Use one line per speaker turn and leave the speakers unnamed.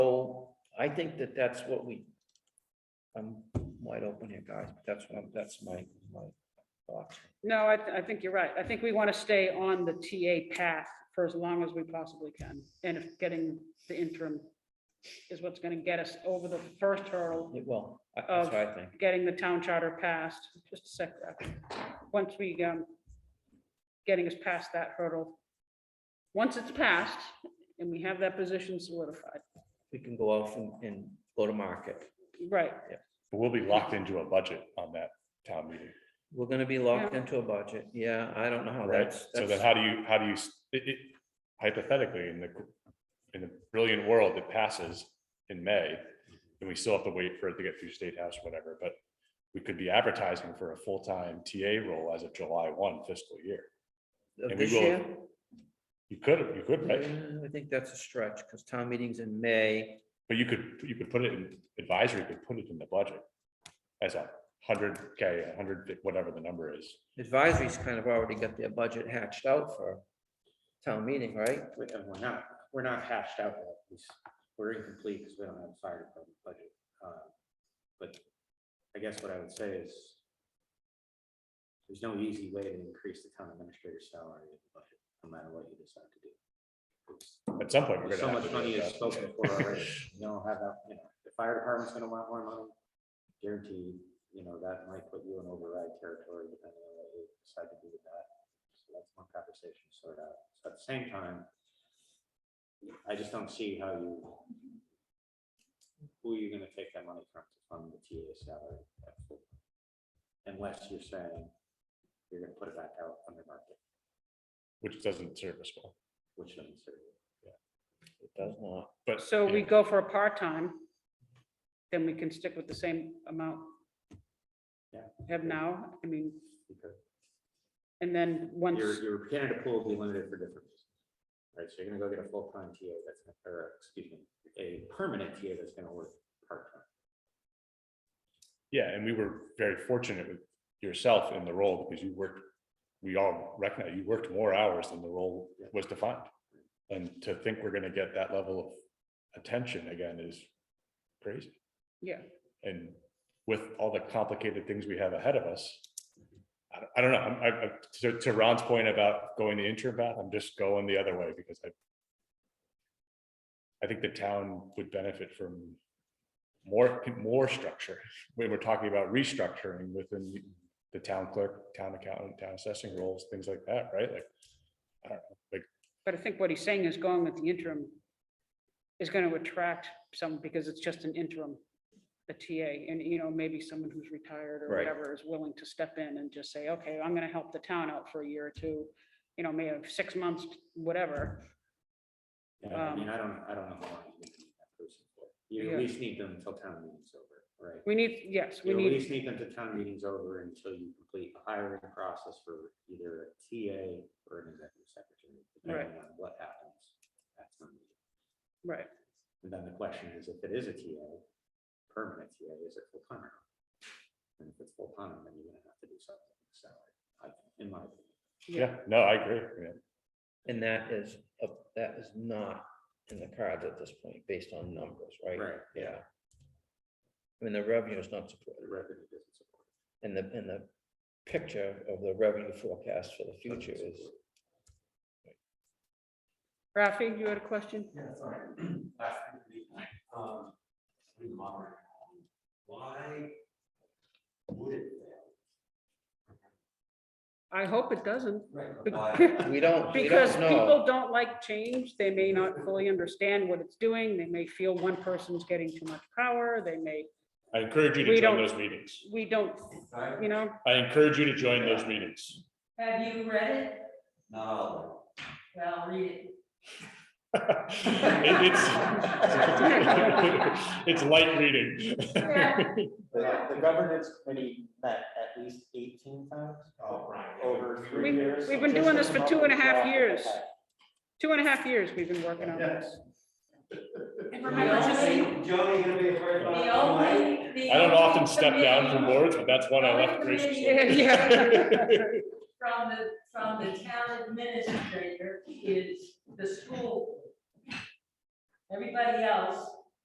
I think that that's what we, I'm wide open here, guys, but that's what, I'm- that's my, my thoughts.
No, I, th- I think you're right. I think we want to stay on the TA path for as long as we possibly can. And if getting the interim is what's going to get us over the first hurdle,
Well, I- that's what I think.
getting the town charter passed, just a sec. Ralph. Once we, um, getting us past that hurdle. Once it's passed and we have that position solidified,
We can go off and, and go to market.
right,
But We'll be locked into a budget on that town meeting,
We're gonna be locked into a budget. Yeah, I don't know how
right?
that's,
So then
that's,
how do you, how do you, s- it- it- hypothetically, in the, in the brilliant world that passes in May, and we still have to wait for it to get through State House, or whatever, but we could be advertising for a full-time TA role as of July one fiscal year.
of
and we
this
will-
year?
You could, you could, right?
Uh, I think that's a stretch, because town meeting's in May.
But you could, you could put it in advisory, could put it in the budget as a hundred K, a hundred, whatever the number is.
Advisory's kind of already got their budget hatched out for town meeting, right?
We- and We're not, we're not hashed out yet. We s- We're incomplete because we don't have a fire department budget. Uh, But I guess what I would say is there's no easy way to increase the town administrator's salary in the budget, no matter what you decide to do. It's-
At some point, we're
there's
gonna. have to
So much
do
money
that.
is spoken for already. You don't have that, you know, the fire department's gonna want more money. Guaranteed, you know, that might put you in override territory depending on what you decide to do with that. So that's one conversation to sort out. So at the same time, I just don't see how you, who are you gonna take that money from to fund the TA salary? at full? Unless you're saying you're gonna put it back out under market,
Which doesn't serve us well,
which doesn't serve you.
It does not.
but.
Mm. so we
yeah,
go for a part-time, then we can stick with the same amount.
Yeah.
we Have now, I mean,
Because
and then once.
Your, your Canada pool will be limited for different reasons. Right, so you're gonna go get a full-time TA that's, gonna- or, excuse me, a permanent TA that's gonna work part-time.
Yeah, and we were very fortunate with yourself in the role because you worked, we all recognize you worked more hours than the role
Yeah.
was defined. And to think we're gonna get that level of attention again is crazy.
Yeah.
And with all the complicated things we have ahead of us, I, don't- I don't know, I'm- I, I, to, to Ron's point about going the interim path, I'm just going the other way because I I think the town would benefit from more, more structure. We were talking about restructuring within the town clerk, town accountant, town assessing roles, things like that, right? Like, I don't know, like,
But I think what he's saying is going with the interim is going to attract some, because it's just an interim, a TA, and you know, maybe someone who's retired or
Right.
whatever is willing to step in and just say, okay, I'm going to help the town out for a year or two, you know, maybe six months, whatever.
Yeah, I
Um,
mean, I don't, I don't know how long you need that person for. You
Yeah.
at least need them until town meeting's over, right?
We need, yes, we
You at
need,
least need them to town meeting's over until you complete the hiring process for either a TA or an executive secretary, depending on what happens. at town meeting.
right,
And then the question is, if it is a TA, permanent TA, is it full time or not? And if it's full time, then you're gonna have to do something with salary, I, in my opinion.
yeah, no, I agree. yeah.
And that is, a- that is not in the cards at this point, based on numbers, right?
Right.
Yeah. I mean, the revenue is not
The
supported,
revenue doesn't support. it.
and the, and the picture of the revenue forecast for the future
Doesn't
is,
support it.
Rafi, you had a question?
Yeah, sorry. Last thing for me. Um, we monitor. Why would it fail?
I hope it doesn't,
Right.
Bec-
Why?
we don't, we
because
don't know.
people don't like change, they may not fully understand what it's doing, they may feel one person's getting too much power, they may,
I encourage you to
We
join
don't-
those meetings.
we don't,
Right?
you know,
I encourage you to join those meetings.
Have you read it?
Not all
Well, read it.
It- It's, it's light reading.
The, the governance committee met at least eighteen times
of it.
over
We-
three years.
we've been
Just
doing
to
this for
come up
two and a
with
half
that,
years.
okay.
two and a half years we've been working on this.
Yes.
And
Johnny,
remember, Jimmy,
Johnny gonna be afraid about.
the only, the.
I don't often
only
step down from
committee
boards, but that's one I left graciously.
Yeah.
From the, from the town administrator is the school. Everybody else